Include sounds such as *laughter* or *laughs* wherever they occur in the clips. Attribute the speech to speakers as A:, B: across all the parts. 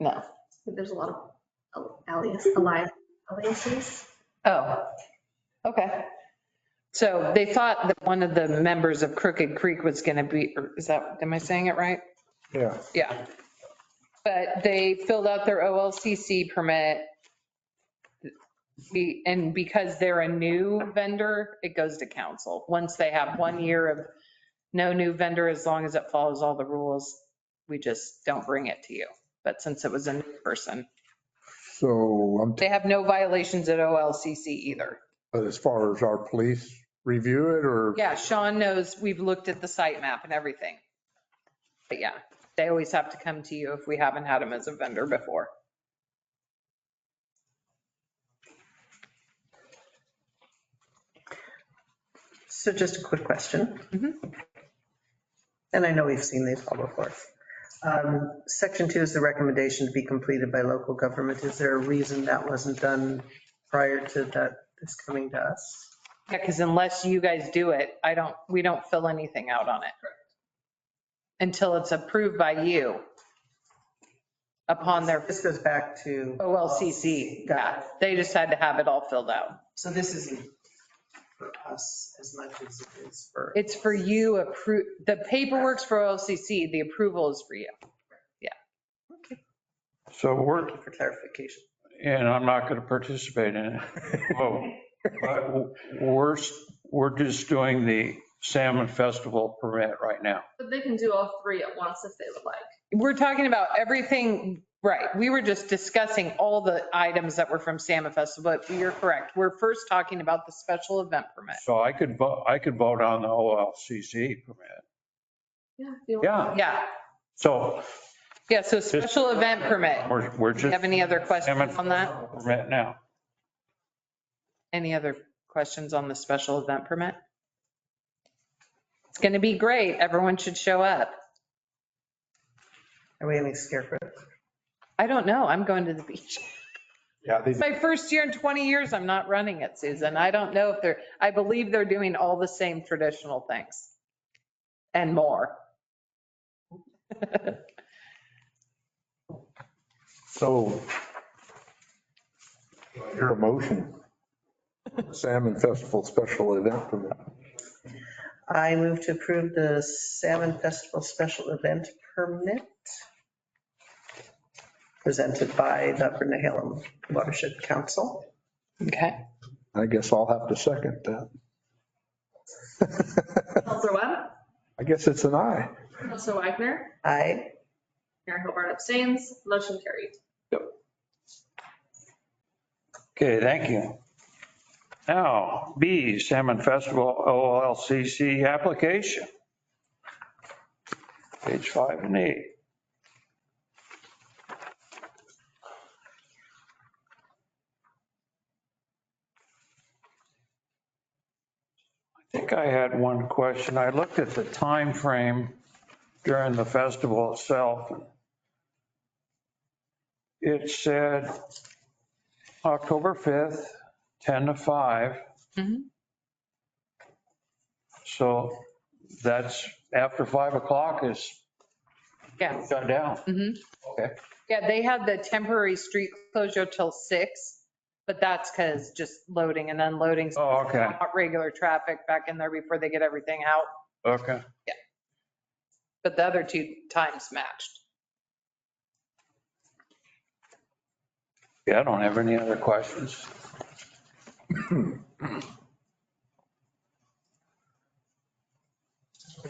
A: No.
B: There's a lot of alias, alias, aliases.
C: Oh, okay. So they thought that one of the members of Crooked Creek was going to be, or is that, am I saying it right?
D: Yeah,
C: Yeah. But they filled out their OLCC permit. Be- And because they're a new vendor, it goes to council. Once they have one year of no new vendor, as long as it follows all the rules, we just don't bring it to you. But since it was a new person,
D: so I'm,
C: they have no violations at OLCC either.
D: but as far as our police review it or?
C: Yeah, Sean knows, we've looked at the site map and everything. But yeah, they always have to come to you if we haven't had them as a vendor before.
E: So just a quick question.
C: Mhm.
E: And I know we've seen these all before. Um, Section two is the recommendation to be completed by local government. Is there a reason that wasn't done prior to that, this coming to us?
C: Yeah, because unless you guys do it, I don't, we don't fill anything out on it. Until it's approved by you upon their
E: This goes back to.
C: OLCC. Yeah, They just had to have it all filled out.
E: So this isn't for us as much as it is for.
C: It's for you approve, the paperwork's for OLCC, the approval is for you.
F: So we're,
E: Thank you For clarification.
F: and I'm not going to participate in it. Whoa. But we're, we're just doing the Salmon Festival permit right now.
B: But they can do all three at once if they would like.
C: We're talking about everything, right, we were just discussing all the items that were from Salmon Festival, but you're correct. We're first talking about the special event permit.
F: So I could vote, I could vote on the OLCC permit.
B: Yeah. if you want.
F: Yeah,
C: Yeah,
F: so
C: yeah, so special event permit.
F: we're, we're
C: Do you
F: just.
C: have any other questions on that?
F: Permit now.
C: Any other questions on the special event permit? It's going to be great. Everyone should show up.
E: Are we any scarecrow?
C: I don't know. I'm going to the beach.
D: Yeah, they,
C: It's my first year in 20 years. I'm not running it, Susan. I don't know if they're, I believe they're doing all the same traditional things and more.
D: so. Your motion. Salmon Festival Special Event Permit.
E: I move to approve the Salmon Festival Special Event Permit presented by the Vernahalum Watershed Council.
C: Okay.
D: I guess I'll have to second that.
B: Counselor Webb,
D: I guess it's an aye.
B: Counselor Wagner,
E: I,
B: Mayor Hobart abstains, motion carried.
F: Okay, thank you. Now, B, Salmon Festival OLCC application. Page five and eight. I think I had one question. I looked at the time frame during the festival itself. It said October 5th, 10 to 5.
C: Mhm.
F: So that's after 5 o'clock is
C: Yeah.
F: shut down.
C: Mhm.
F: Okay.
C: Yeah, they had the temporary street closure till six, but that's because just loading and unloading.
F: Oh, okay,
C: Not Regular traffic back in there before they get everything out.
F: okay.
C: but the other two times matched.
F: Yeah, I don't have any other questions.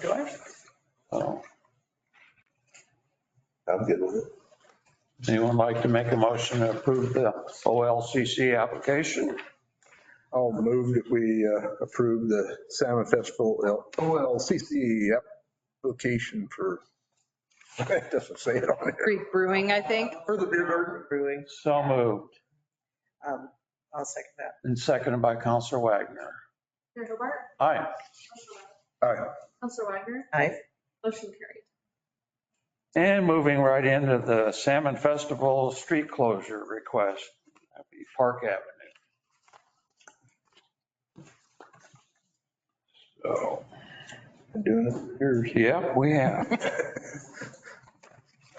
F: Do I? Oh,
D: I'm good with it.
F: Anyone like to make a motion to approve the OLCC application?
D: I'll move that we uh, approve the Salmon Festival L- OLCC application for, *laughs* it doesn't say it on here.
C: Creek Brewing, I think.
D: For the beer garden.
E: Brewing,
F: So moved
E: um, I'll second that.
F: and seconded by Counselor Wagner.
B: Mayor Hobart,
F: Aye.
D: All right,
B: Counselor Wagner,
E: I,
B: motion carried.
F: And moving right into the Salmon Festival street closure request, that'd be Park Avenue.
D: so, I'm doing it. Here's-
F: Yep, we have.